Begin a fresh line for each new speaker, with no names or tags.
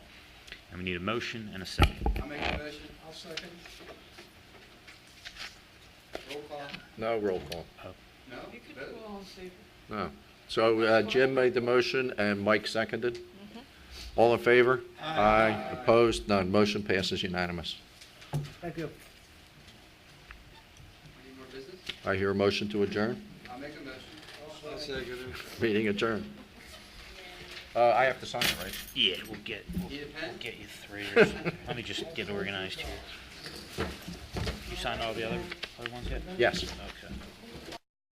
And we need a motion and a second.
I make a motion. I'll second. Roll call.
No roll call,
No?
You could
Vote.
call and see.
no. So uh, Jim made the motion and Mike seconded. All in favor? Aye. Opposed? None. Motion passes unanimous.
Thank you.
Any more business?
I hear a motion to adjourn.
I make a motion. I'll second.
Meeting adjourned. Uh, I have to sign it, right?
Yeah, we'll get, we'll
Need a pen?
get you three or something. Let me just get organized here. You signed all the other, other ones yet?
Yes.
Okay.